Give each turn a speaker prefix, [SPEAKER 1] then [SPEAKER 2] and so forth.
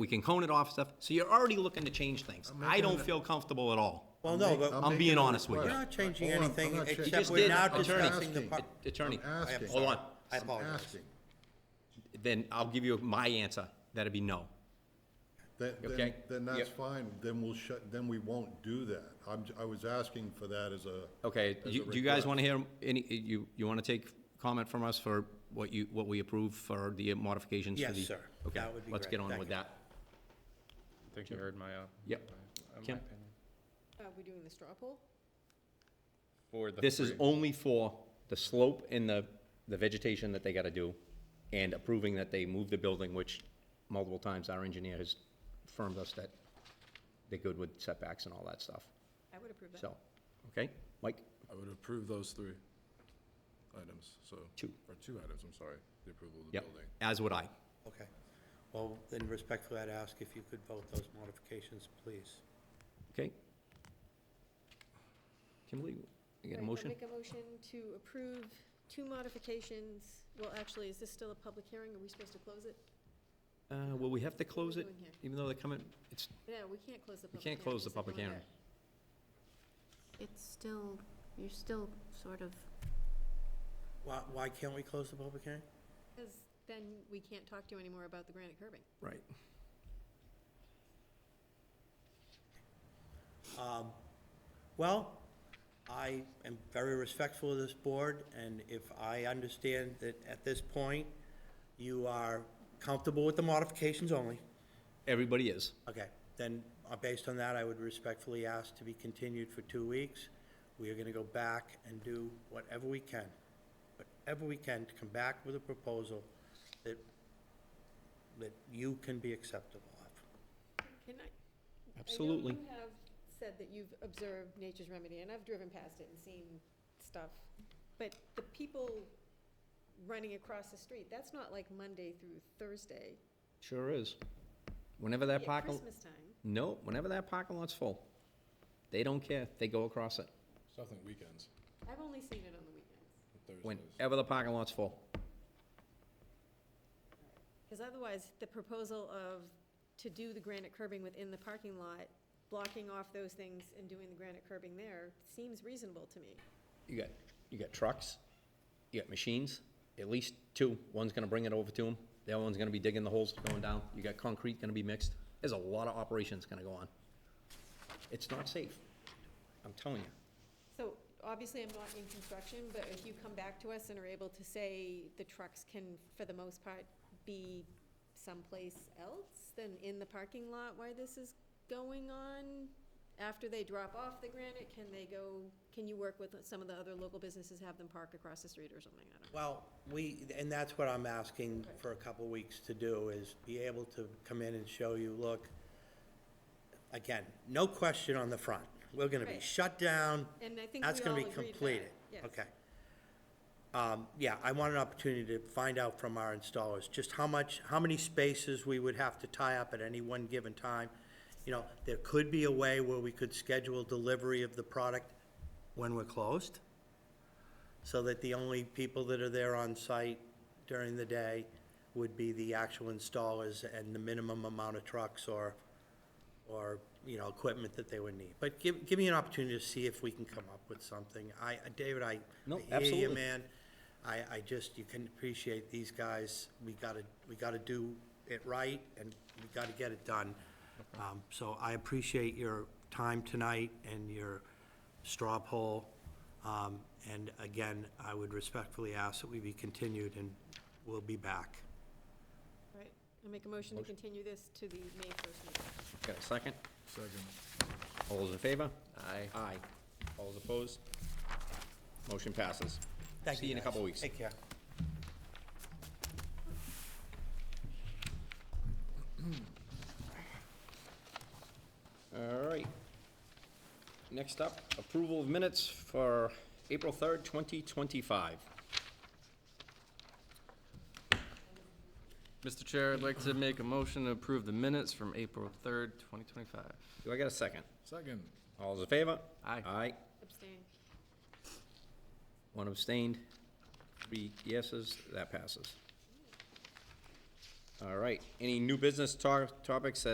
[SPEAKER 1] we can cone it off stuff, so you're already looking to change things. I don't feel comfortable at all.
[SPEAKER 2] Well, no,
[SPEAKER 1] I'm
[SPEAKER 2] but
[SPEAKER 1] being
[SPEAKER 3] making a
[SPEAKER 1] honest with you.
[SPEAKER 2] we're
[SPEAKER 3] request.
[SPEAKER 2] not changing
[SPEAKER 3] Hold on, I'm
[SPEAKER 2] anything
[SPEAKER 3] not changing-
[SPEAKER 1] You
[SPEAKER 2] except
[SPEAKER 1] just
[SPEAKER 2] we're
[SPEAKER 1] did.
[SPEAKER 2] now
[SPEAKER 1] I'm
[SPEAKER 2] discussing the
[SPEAKER 3] asking.
[SPEAKER 2] part.
[SPEAKER 1] Attorney,
[SPEAKER 3] I'm asking.
[SPEAKER 1] hold on,
[SPEAKER 2] I
[SPEAKER 3] I'm
[SPEAKER 2] apologize.
[SPEAKER 3] asking.
[SPEAKER 1] then I'll give you my answer, that'd be no.
[SPEAKER 3] Then, then,
[SPEAKER 1] Okay.
[SPEAKER 3] then that's
[SPEAKER 1] Yeah.
[SPEAKER 3] fine, then we'll shut, then we won't do that. I'm, j- I was asking for that as a.
[SPEAKER 1] Okay,
[SPEAKER 3] as
[SPEAKER 1] you-
[SPEAKER 3] a
[SPEAKER 1] do you guys
[SPEAKER 3] request.
[SPEAKER 1] want to hear any, you, you want to take comment from us for what you, what we approve for the modifications to
[SPEAKER 2] Yes,
[SPEAKER 1] the?
[SPEAKER 2] sir.
[SPEAKER 1] Okay,
[SPEAKER 2] That would be
[SPEAKER 1] let's
[SPEAKER 2] great.
[SPEAKER 1] get on
[SPEAKER 2] Thank
[SPEAKER 1] with
[SPEAKER 2] you.
[SPEAKER 1] that.
[SPEAKER 4] I think you heard my, uh.
[SPEAKER 1] Yep.
[SPEAKER 4] my- uh, my
[SPEAKER 1] Kim?
[SPEAKER 4] opinion.
[SPEAKER 5] Are we doing the straw poll?
[SPEAKER 4] For the
[SPEAKER 1] This is
[SPEAKER 4] three.
[SPEAKER 1] only for the slope and the, the vegetation that they gotta do, and approving that they move the building, which multiple times our engineer has affirmed us that they're good with setbacks and all that stuff,
[SPEAKER 5] I would approve that.
[SPEAKER 1] so, okay, Mike?
[SPEAKER 6] I would approve those three items, so.
[SPEAKER 1] Two.
[SPEAKER 6] Or two items, I'm sorry, the approval of the
[SPEAKER 1] Yep,
[SPEAKER 6] building.
[SPEAKER 1] as would I.
[SPEAKER 2] Okay. Well, then respectfully, I'd ask if you could vote those modifications, please.
[SPEAKER 1] Okay. Kimberly, you got a
[SPEAKER 5] Right, I'll
[SPEAKER 1] motion?
[SPEAKER 5] Make a motion to approve two modifications. Well, actually, is this still a public hearing? Are we supposed to close it?
[SPEAKER 1] Uh, will we have to close it,
[SPEAKER 5] doing here?
[SPEAKER 1] even though they're coming, it's,
[SPEAKER 5] No, we can't close the
[SPEAKER 1] we
[SPEAKER 5] public hearing.
[SPEAKER 1] can't close the
[SPEAKER 5] It's not
[SPEAKER 1] public
[SPEAKER 5] going
[SPEAKER 1] hearing.
[SPEAKER 7] It's still, you're still sort of,
[SPEAKER 2] Why, why can't we close the public hearing?
[SPEAKER 5] there. Because then we can't talk to you anymore about the granite curbing.
[SPEAKER 1] Right.
[SPEAKER 2] Um, Well, I am very respectful of this board, and if I understand that at this point, you are comfortable with the modifications only,
[SPEAKER 1] Everybody is.
[SPEAKER 2] okay, then uh, based on that, I would respectfully ask to be continued for two weeks. We are gonna go back and do whatever we can, whatever we can to come back with a proposal that, that you can be acceptable of.
[SPEAKER 5] Can I?
[SPEAKER 1] Absolutely.
[SPEAKER 5] I know you have said that you've observed Nature's Remedy, and I've driven past it and seen stuff. But the people running across the street, that's not like Monday through Thursday.
[SPEAKER 1] Sure is. Whenever that
[SPEAKER 5] Be at
[SPEAKER 1] parking,
[SPEAKER 5] Christmas time.
[SPEAKER 1] no, whenever that parking lot's full, they don't care. They go across it.
[SPEAKER 6] Something weekends,
[SPEAKER 5] I've only seen it on the weekends.
[SPEAKER 6] Thursdays.
[SPEAKER 1] Whenever the parking lot's full.
[SPEAKER 5] Because otherwise, the proposal of, to do the granite curbing within the parking lot, blocking off those things and doing the granite curbing there, seems reasonable to me.
[SPEAKER 1] You got, you got trucks, you got machines, at least two. One's gonna bring it over to them. The other one's gonna be digging the holes going down. You got concrete gonna be mixed. There's a lot of operations gonna go on. It's not safe. I'm telling you.
[SPEAKER 5] So, obviously, I'm not in construction, but if you come back to us and are able to say the trucks can, for the most part, be someplace else than in the parking lot where this is going on, after they drop off the granite, can they go, can you work with some of the other local businesses, have them park across the street or something? I don't know.
[SPEAKER 2] Well, we, and that's what I'm asking for a couple of weeks to do, is be able to come in and show you, look, again, no question on the front. We're gonna be
[SPEAKER 5] Right.
[SPEAKER 2] shut down.
[SPEAKER 5] And I think
[SPEAKER 2] That's
[SPEAKER 5] we
[SPEAKER 2] gonna
[SPEAKER 5] all
[SPEAKER 2] be
[SPEAKER 5] agreed to that,
[SPEAKER 2] completed.
[SPEAKER 5] yes.
[SPEAKER 2] Okay. Um, yeah, I want an opportunity to find out from our installers, just how much, how many spaces we would have to tie up at any one given time. You know, there could be a way where we could schedule delivery of the product when we're closed so that the only people that are there on site during the day would be the actual installers and the minimum amount of trucks or, or, you know, equipment that they would need. But give, give me an opportunity to see if we can come up with something. I, David, I
[SPEAKER 1] No,
[SPEAKER 2] I hear you,
[SPEAKER 1] absolutely.
[SPEAKER 2] man. I, I just, you can appreciate these guys. We gotta, we gotta do it right and we gotta get it done. Um, so I appreciate your time tonight and your straw poll. Um, and again, I would respectfully ask that we be continued and we'll be back.
[SPEAKER 5] Right, I make a motion to continue this to the May first meeting.
[SPEAKER 1] Got a second?
[SPEAKER 6] Second.
[SPEAKER 1] All those in favor?
[SPEAKER 4] Aye.
[SPEAKER 1] Aye. All those opposed? Motion passes.
[SPEAKER 2] Thank
[SPEAKER 1] See you in a
[SPEAKER 2] guys.
[SPEAKER 1] couple weeks.
[SPEAKER 2] Take care.
[SPEAKER 1] All right. Next up, approval of minutes for April third, twenty twenty-five.
[SPEAKER 4] Mr. Chair, I'd like to make a motion to approve the minutes from April third, twenty twenty-five.
[SPEAKER 1] Do I got a second?
[SPEAKER 6] Second,
[SPEAKER 1] All those in favor?
[SPEAKER 4] Aye.
[SPEAKER 1] Aye.
[SPEAKER 5] Abstain.
[SPEAKER 1] One abstained, three yeses, that passes. All right, any new business to- topics that